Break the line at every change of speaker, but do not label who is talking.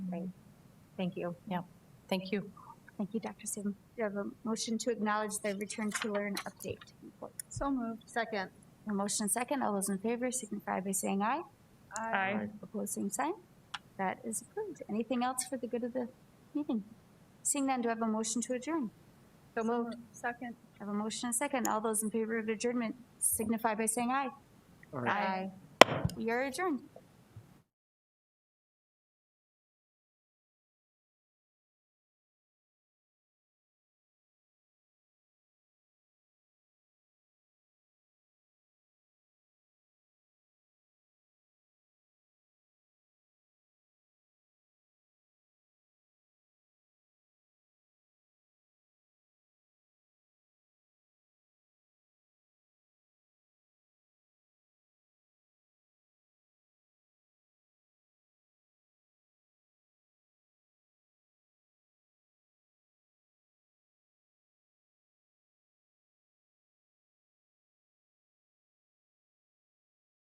Thank you.
Yeah, thank you.
Thank you, Dr. Saban. Do you have a motion to acknowledge the Return to Learn update report?
So moved. Second.
A motion and second. All those in favor signify by saying aye.
Aye.
Opposed, same sign. That is approved. Anything else for the good of the meeting? Seeing none, do I have a motion to adjourn?
So moved. Second.
I have a motion and second. All those in favor of adjournment signify by saying aye.
Aye.
We are adjourned.